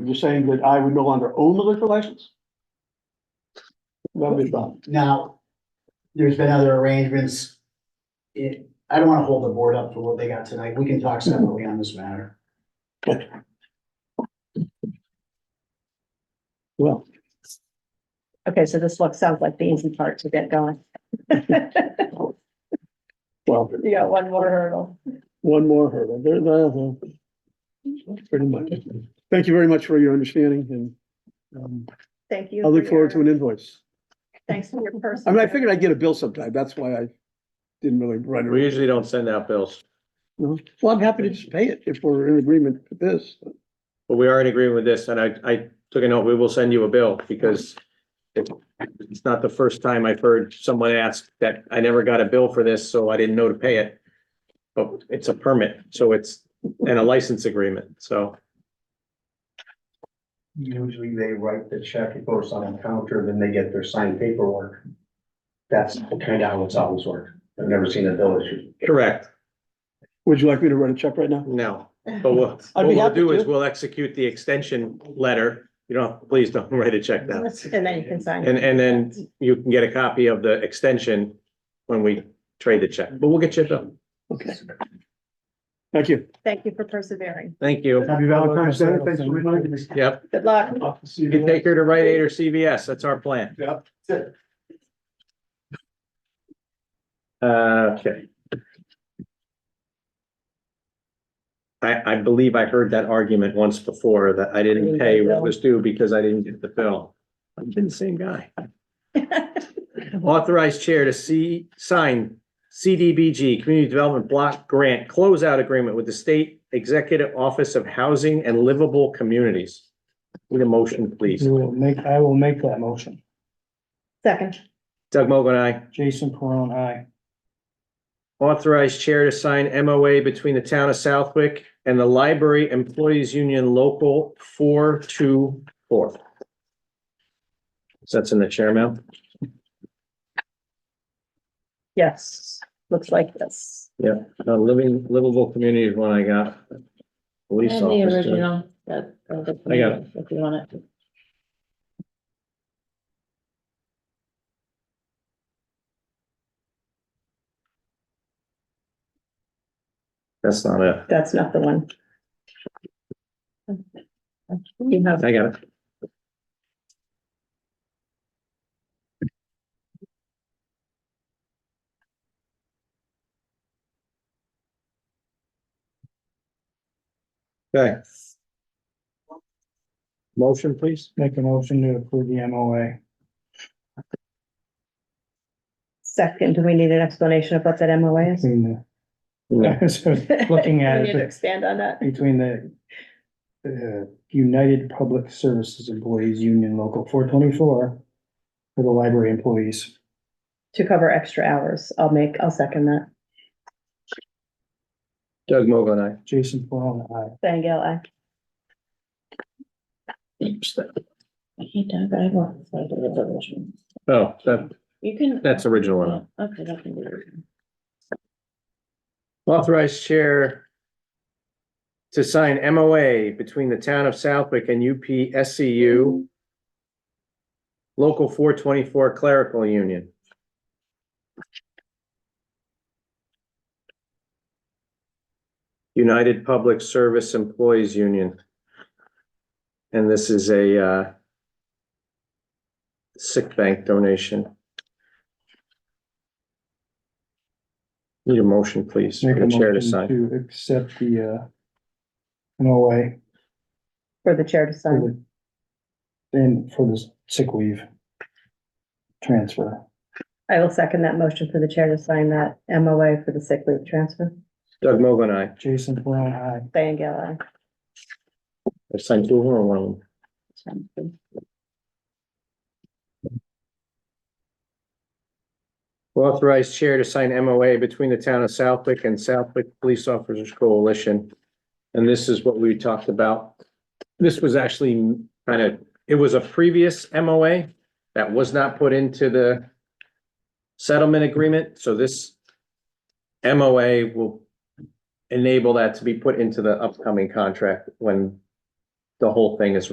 you're saying that I would no longer own the liquor license? That'd be fine. Now, there's been other arrangements. It, I don't wanna hold the board up for what they got tonight. We can talk Mm-hmm. separately on this matter. Well, Okay, so this looks, sounds like the easy part to get going. You well, got one more hurdle. one more hurdle. There, there, there. Pretty much. Thank you very much for your understanding and um, Thank you. I look for forward to your- an invoice. Thanks for your person. I mean, I figured I'd get a bill sometime. That's why I didn't really run. We usually don't send out bills, Well, I'm happy to just pay it if we're in agreement with this. but we are in agreement with this, and I, I took a note, we will send you a bill, because it- it's not the first time I've heard someone ask that I never got a bill for this, so I didn't know to pay it. But it's a permit, so it's, and a license agreement, so Usually they write the check, it goes on the counter, then they get their signed paperwork. That's kind of how it's always worked. I've never seen a bill issue. correct, Would you like me to write a check right now? no. But Oh, we'll- I'd what be we'll happy do is to. we'll execute the extension letter. You don't, please don't write a check now. And then you can sign. And, and then you can get a copy of the extension when we trade the check, but we'll get you a bill. Okay. Thank you. Thank you for persevering. Thank you. Happy Valentine's Day. Thanks for reminding me. Yep, Good luck. you can take her to Rite Aid or CVS, that's our plan. Yep. Uh, Okay. I, I believe I heard that argument once before, that I didn't pay what was due because I didn't get the bill. I've been the same guy. Authorized chair to see, sign CDBG, Community Development Block Grant Closeout Agreement with the State Executive Office of Housing and Livable Communities. Need a motion, please. You will make, I will make that motion. Second, Doug Mogul, aye. Jason Perone, aye. Authorized chair to sign MOA between the town of Southwick and the Library Employees Union Local four two four. That's in the chair mail. yes, looks like this. Uh, living livable communities one I got. Police And the officer. original, that, or the. I got If you want it. That's not it. That's not the one. You have, I got it. Okay. Motion, please. Make a motion to approve the MOA. second, do we need an explanation of what that MOA is? Between Yeah. the, looking at We need to it, Expand on that. between the uh, United Public Services Employees Union Local four twenty-four for the library employees. To cover extra hours. I'll make, I'll second that. Doug Mogul, aye. Jason Perone, aye. Thank you. I. Hey, Doug, I want. so I do the original. Oh, that, You can. that's original one. Yeah, Okay, that can be. written. Authorized chair to sign MOA between the town of Southwick and UPSCU Local four twenty-four clerical union. United Public Service Employees Union. And this is a uh, sick bank donation. Need a motion, please, for Make the a chair to motion sign. to accept the uh, MOA For the chair to for sign. the and for the sick leave transfer. I will second that motion for the chair to sign that MOA for the sick leave transfer. Doug Mogul, aye. Jason Perone, aye. Diane Gale, aye. I signed two of them or one of them? Sounds good. Authorized chair to sign MOA between the town of Southwick and Southwick Police Officers Coalition. And this is what we talked about. This was actually kind of, it was a previous MOA that was not put into the settlement agreement, so this MOA will enable that to be put into the upcoming contract when the whole thing is